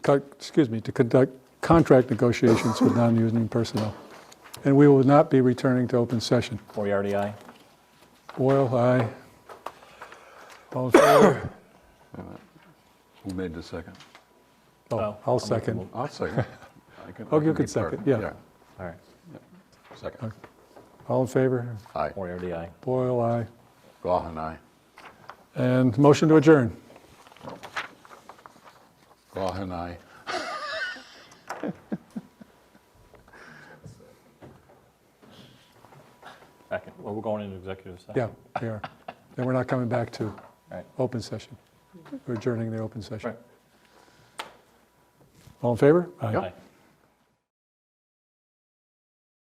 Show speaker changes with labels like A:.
A: co- excuse me, to conduct contract negotiations with non-union personnel. And we will not be returning to open session.
B: Moriarty, aye.
A: Boyle, aye. All in favor?
C: Who made the second?
A: Oh, I'll second.
C: I'll second. I can- I
A: Oh, you
C: be
A: can second,
C: part-
A: yeah.
B: All right,
C: Second.
A: All in favor?
C: Aye.
B: Moriarty, aye.
A: Boyle, aye.
C: Gohan, aye.
A: And motion to adjourn.
C: Gohan, aye.
B: Second, well, we're going into executive session.
A: Yeah, we are. And we're not coming back to
B: All right.
A: open session. We're adjourning the open session.
B: Right.
A: All in favor?
C: Yep.
B: Aye.